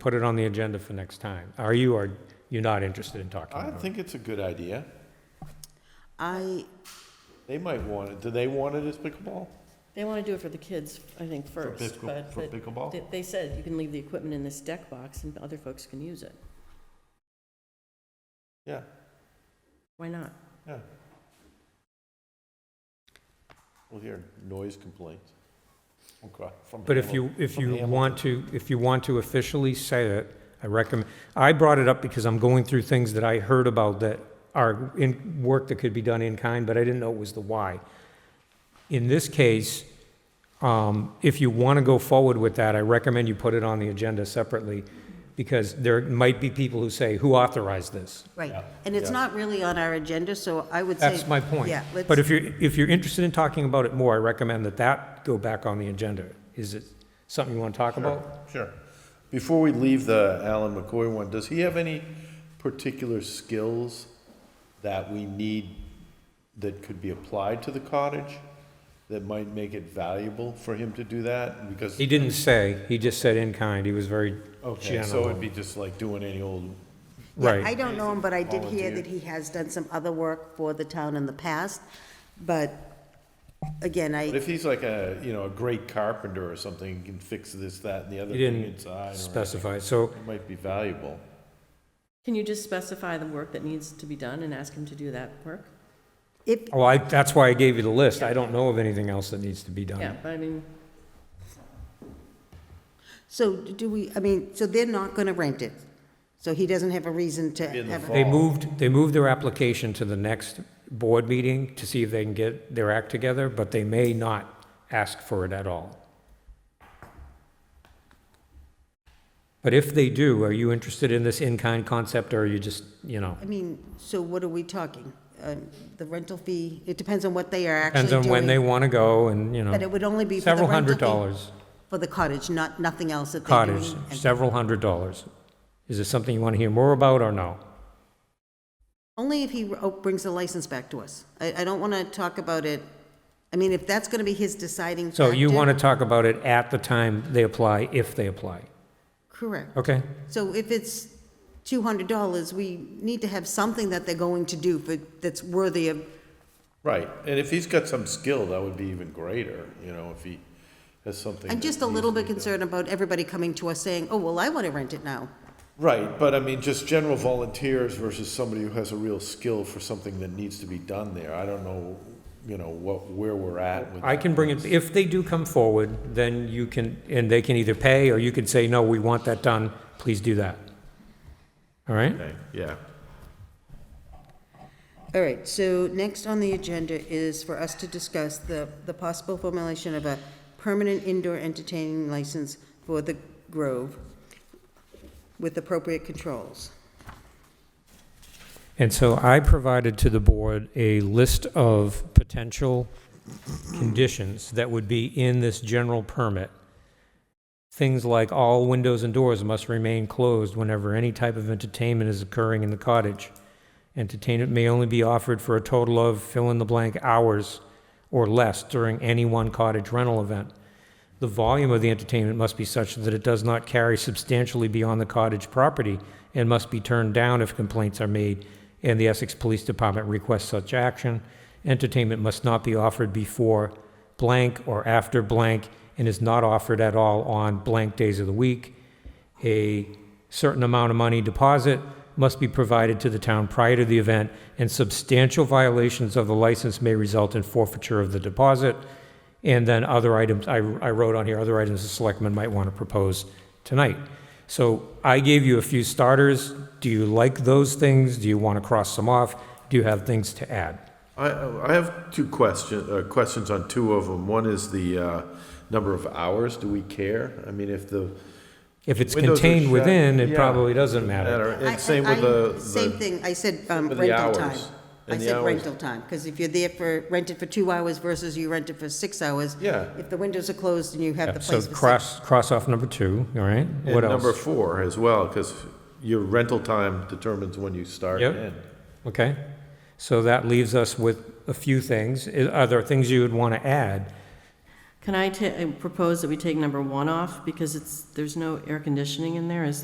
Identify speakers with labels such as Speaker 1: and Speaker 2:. Speaker 1: put it on the agenda for next time. Are you, or you're not interested in talking
Speaker 2: I
Speaker 1: about it?
Speaker 2: think it's a good idea.
Speaker 3: I,
Speaker 2: They might want it. Do they want it as pickleball?
Speaker 3: they want to do it for the kids, I think, first,
Speaker 2: pickle-
Speaker 3: but.
Speaker 2: for
Speaker 3: but
Speaker 2: pickleball?
Speaker 3: they- They said you can leave the equipment in this deck box and other folks can use it.
Speaker 2: Yeah,
Speaker 3: Why not?
Speaker 2: yeah. We'll hear noise complaints. Okay, from
Speaker 1: But if
Speaker 2: Hamil-
Speaker 1: you, if
Speaker 2: from
Speaker 1: you
Speaker 2: Hamilton.
Speaker 1: want to, if you want to officially say it, I recommend, I brought it up because I'm going through things that I heard about that are in, work that could be done in kind, but I didn't know it was the why. In this case, um, if you want to go forward with that, I recommend you put it on the agenda separately, because there might be people who say, who authorized this?
Speaker 4: Right, and it's not really on our agenda, so I would say.
Speaker 1: That's my point.
Speaker 4: Yeah, let's.
Speaker 1: But if you're, if you're interested in talking about it more, I recommend that that go back on the agenda. Is it something you want to talk about?
Speaker 2: Sure. Before we leave the Alan McCoy one, does he have any particular skills that we need that could be applied to the cottage that might make it valuable for him to do that? Because,
Speaker 1: He didn't say, he just said in kind, he was very
Speaker 2: okay, so it'd
Speaker 1: general.
Speaker 2: be just like doing any old,
Speaker 4: Yeah,
Speaker 1: Right.
Speaker 4: I don't know him, but I did hear
Speaker 2: Volunteer.
Speaker 4: that he has done some other work for the town in the past, but again,
Speaker 2: but
Speaker 4: I,
Speaker 2: if he's like a, you know, a great carpenter or something, he can fix this, that, and the other
Speaker 1: He
Speaker 2: thing
Speaker 1: didn't
Speaker 2: inside. or-
Speaker 1: specify, so,
Speaker 2: It might be valuable.
Speaker 3: Can you just specify the work that needs to be done and ask him to do that work?
Speaker 4: if,
Speaker 1: oh, I, that's why I gave you the list, I don't know of anything else that needs to be
Speaker 2: Uh-huh.
Speaker 3: Yeah,
Speaker 1: done.
Speaker 3: but I mean,
Speaker 4: so do we, I mean, so they're not gonna rent it, so he doesn't have a reason to
Speaker 2: In the
Speaker 4: have.
Speaker 2: fall.
Speaker 1: They
Speaker 4: a-
Speaker 1: moved, they moved their application to the next board meeting to see if they can get their act together, but they may not ask for it at all. But if they do, are you interested in this in-kind concept, or are you just, you know,
Speaker 4: I mean, so what are we talking? Um, The rental fee, it depends on what they are actually
Speaker 1: depends
Speaker 4: doing.
Speaker 1: on when they want to go, and, you know.
Speaker 4: But it would only be for the
Speaker 1: Several
Speaker 4: rental
Speaker 1: hundred
Speaker 4: fee
Speaker 1: dollars.
Speaker 4: For the cottage, not, nothing else that they're doing.
Speaker 1: cottage,
Speaker 4: and-
Speaker 1: several hundred dollars. Is it something you want to hear more about or no?
Speaker 4: Only if he oh, brings the license back to us. I, I don't want to talk about it, I mean, if that's going to be his deciding factor.
Speaker 1: So you want to talk about it at the time they apply, if they apply.
Speaker 4: Correct.
Speaker 1: Okay?
Speaker 4: So if it's $200, we need to have something that they're going to do for, that's worthy of,
Speaker 2: Right, and if he's got some skill, that would be even greater, you know, if he has something.
Speaker 4: I'm
Speaker 2: that
Speaker 4: just a little
Speaker 2: needs
Speaker 4: bit
Speaker 2: to be done.
Speaker 4: concerned about everybody coming to us saying, oh, well, I want to rent it now.
Speaker 2: Right, but I mean, just general volunteers versus somebody who has a real skill for something that needs to be done there. I don't know, you know, what, where we're at with.
Speaker 1: I can bring it, if they do come forward, then you can, and they can either pay or you can say, no, we want that done, please do that. All right?
Speaker 2: Okay, Yeah.
Speaker 4: All right, so next on the agenda is for us to discuss the, the possible formulation of a permanent indoor entertaining license for the Grove with appropriate controls.
Speaker 1: And so I provided to the board a list of potential conditions that would be in this general permit. Things like all windows and doors must remain closed whenever any type of entertainment is occurring in the cottage. Entertainment may only be offered for a total of fill-in-the-blank hours or less during any one cottage rental event. The volume of the entertainment must be such that it does not carry substantially beyond the cottage property and must be turned down if complaints are made and the Essex Police Department requests such action. Entertainment must not be offered before blank or after blank and is not offered at all on blank days of the week. A certain amount of money deposit must be provided to the town prior to the event, and substantial violations of the license may result in forfeiture of the deposit. And then other items, I, I wrote on here, other items the selectmen might want to propose tonight. So I gave you a few starters. Do you like those things? Do you want to cross them off? Do you have things to add?
Speaker 2: I, I have two question, uh, questions on two of them. One is the, uh, number of hours. Do we care? I mean, if the.
Speaker 1: If it's
Speaker 2: windows are
Speaker 1: contained
Speaker 2: shut-
Speaker 1: within, it
Speaker 2: Yeah.
Speaker 1: probably doesn't matter.
Speaker 4: I-
Speaker 2: And same with
Speaker 4: I-
Speaker 2: the. the-
Speaker 4: Same thing, I said um,
Speaker 2: with the
Speaker 4: rental time.
Speaker 2: hours
Speaker 4: I
Speaker 2: and the
Speaker 4: said
Speaker 2: hours.
Speaker 4: rental time, because if you're there for, rented for two hours versus you rented for six hours.
Speaker 2: Yeah.
Speaker 4: If the windows are closed and you have the
Speaker 1: So
Speaker 4: place for six.
Speaker 1: cross, cross off number two, all right?
Speaker 2: And
Speaker 1: What
Speaker 2: number
Speaker 1: else?
Speaker 2: four as well, because your rental time determines when you start
Speaker 1: Yep.
Speaker 2: and end.
Speaker 1: Okay, so that leaves us with a few things. I- Are there things you would want to add?
Speaker 3: uh, can I ta- propose that we take number one off because it's, there's no air conditioning in there, is